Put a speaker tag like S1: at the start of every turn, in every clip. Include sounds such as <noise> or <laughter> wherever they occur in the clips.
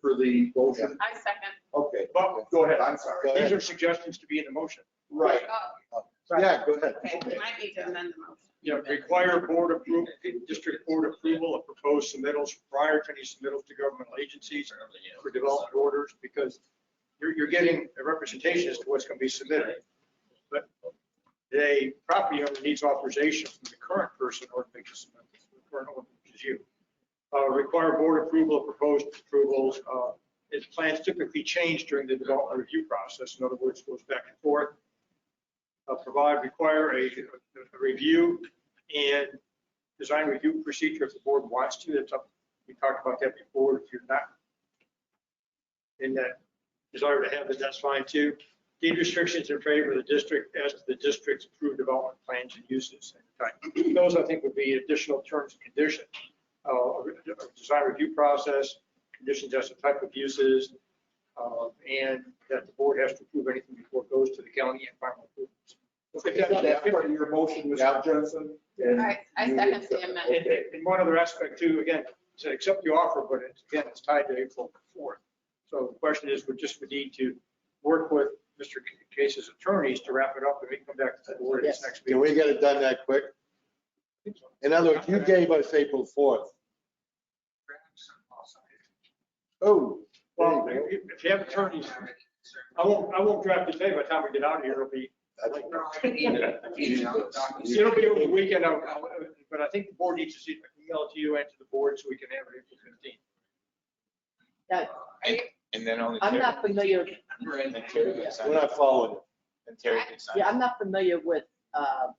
S1: for the motion?
S2: I second.
S1: Okay,
S3: Well, go ahead, I'm
S1: Oh, Go
S3: sorry.
S1: ahead.
S3: These are suggestions to be in the motion.
S1: right,
S2: Oh,
S1: yeah, go ahead.
S2: Okay, we might need to amend the motion.
S3: You know, require board approval, district board approval of proposed submittals prior to any submittals to governmental agencies for development orders, because you're, you're getting a representation as to what's going to be submitted. But the property owner needs authorization from the current person or the current owner, which is you. Uh, require board approval of proposed approvals, uh, its plans typically change during the development review process. In other words, goes back and forth. Uh, provide, require a, a review and design review procedure if the board wants to. That's up, we talked about that before. If you're not in that desire to have it, that's fine too. Deed restrictions in favor of the district as to the district's approved development plans and uses. and type. Those, I think, would be additional terms and conditions. Uh, a design review process, conditions as to type of uses, uh, and that the board has to approve anything before it goes to the county and final approvals.
S1: Okay, That's part of your motion, Mr. Jensen. and
S2: I- I
S1: you
S2: second
S1: accept
S2: the
S1: it.
S2: amendment.
S3: And,
S1: Okay.
S3: and one other aspect too, again, to accept the offer, but it's, again, it's tied to April 4th. So the question is, we just would need to work with Mr. Case's attorneys to wrap it up and we can come back to the board this next
S4: Can we
S3: meeting.
S4: get it done that quick? In other words, you gave us April 4th. Oh,
S3: Well, if if you have attorneys, I won't, I won't draft it today. By the time we get out of here, it'll be,
S4: that's-
S3: it'll be over the weekend. I'll- I'll- But I think the board needs to see, email it to you and to the board so we can have it April 15th.
S5: And then only.
S6: I'm
S5: Terry-
S6: not familiar,
S5: And then Terry can sign
S4: we're
S5: it.
S4: not following. it.
S5: And Terry can sign it.
S6: yeah, I'm not familiar with uh,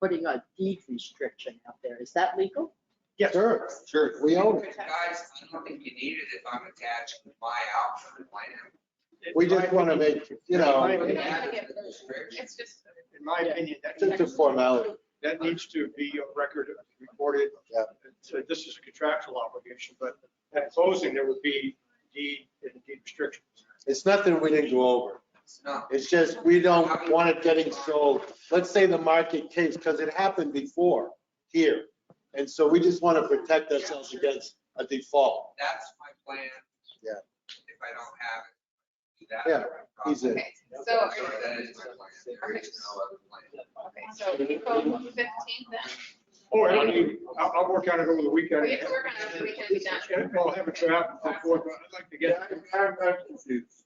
S6: putting a deed restriction out there. Is that legal?
S3: Yes.
S4: Sure, sure, we own it.
S2: Guys,
S7: Guys, I don't think you need it if I'm attached to my outfit, my
S4: We just want to make, you
S2: We don't
S4: know,
S2: have to get-
S7: restriction.
S2: It's just,
S3: In my opinion,
S4: it's
S3: that's.
S4: just a formality.
S3: That needs to be a record recorded.
S4: Yeah.
S3: So this is a contractual obligation, but at closing, there would be deed and deed restrictions.
S4: It's nothing we didn't go over.
S7: It's not.
S4: It's just, we don't want it getting sold. Let's say the market case, because it happened before here. And so we just want to protect ourselves against a default.
S7: That's my plan.
S4: Yeah.
S7: If I don't have it, do that.
S4: Yeah, he's in.
S2: okay, so, are
S7: Sorry,
S2: you-
S7: that is my plan. There is no other plan.
S2: okay, so April 15th then?
S3: Or Oh, I mean, I'll, I'll work on it over the weekend.
S2: We can work on it over the weekend and be done.
S3: And I'll have a draft before, but I'd like to
S1: Yeah,
S3: get,
S1: I'm- I'm, I'm confused.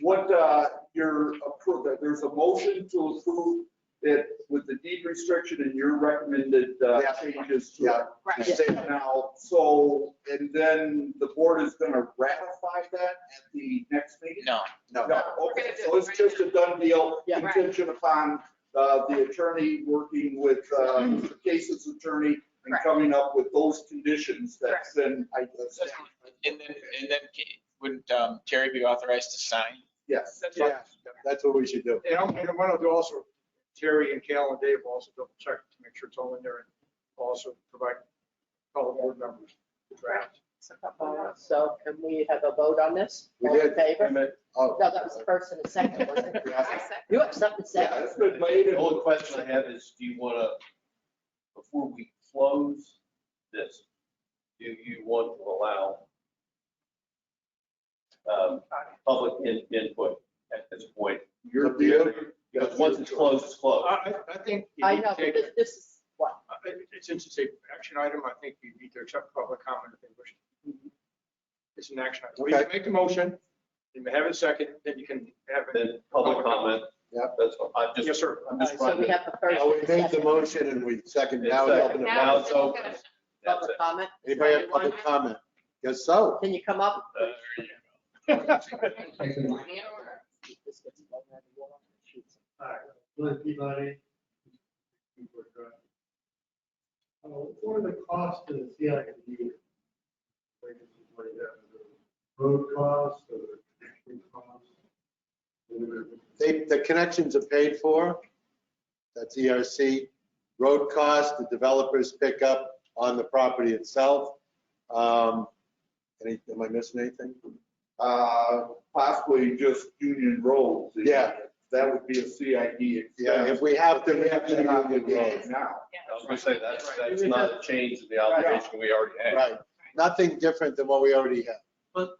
S1: What, uh, you're approving, there's a motion to approve it with the deed restriction and your recommended uh,
S4: Yeah.
S1: changes to
S4: Yeah.
S1: it.
S2: Right,
S4: Say it.
S1: Now, so, and then the board is gonna ratify that at the next meeting?
S5: No,
S4: No.
S1: No, okay, so it's just a done deal,
S6: Yeah.
S1: contingent upon, uh, the attorney working with, uh,
S6: Mm-hmm.
S1: Mr. Case's attorney and
S2: Correct.
S1: coming up with those conditions that's then, I,
S5: and then, and then Kate- wouldn't um, Terry be authorized to sign?
S1: yes.
S3: that's
S4: Yeah, that's what we should do.
S3: And I'm, and what I'll do also, Terry and Cal and Dave will also double check to make sure it's all in there and also provide all the board members the draft.
S6: So can we have a vote on this?
S4: We
S6: All in
S4: did.
S6: favor?
S4: Oh.
S6: No, that was the first and the second, wasn't it?
S2: I second.
S6: You have something to say?
S1: Yeah, it's been made.
S8: The
S4: Oh,
S8: only question I have is, do you want to, before we close this, do you want to allow um, public in- input at this point?
S1: Your
S4: deal.
S8: Because once it's closed, it's
S3: I,
S8: closed.
S3: I I think. you
S6: I
S3: need to
S6: know, but
S3: take-
S6: this- this is what,
S3: I- I- Since it's a action item, I think you need to accept public comment if they wish. It's an action item. We
S4: Okay.
S3: can make the motion, you may have it second, then you can have it.
S8: <laughs> Then public comment.
S4: Yeah.
S8: That's, what- I'm
S3: Yes,
S8: just,
S3: sir.
S8: I'm
S6: all right,
S8: just
S6: so we
S8: running.
S6: have the first.
S4: Well, we
S6: and
S4: made the
S6: second.
S4: motion and we second,
S8: It's
S4: now we
S8: second.
S4: open it
S2: Now
S4: now.
S2: it's
S8: mouth's open.
S2: discussion.
S8: That's
S6: Public
S8: it.
S6: comment?
S4: Anybody have public comment? Yes, so.
S6: Can you come up?
S8: Uh,
S6: This gets thrown out of the wall. Shoot.
S9: Hello, everybody. Uh, What are the costs of the CIP? Road costs or connection costs?
S4: They, the connections are paid for. That's ERC. Road costs, the developers pick up on the property itself. Um, any, am I missing anything?
S1: Uh, possibly just Union Roads.
S4: Yeah.
S1: That would be a CID.
S4: Yeah,
S1: expense.
S4: if we have to, we
S1: They
S4: have
S1: have
S4: to
S1: that
S4: do it
S1: obligation now.
S8: I was going to say, that's,
S1: Right.
S8: that's not a change in the obligation we already had.
S4: Right. Nothing different than what we already have.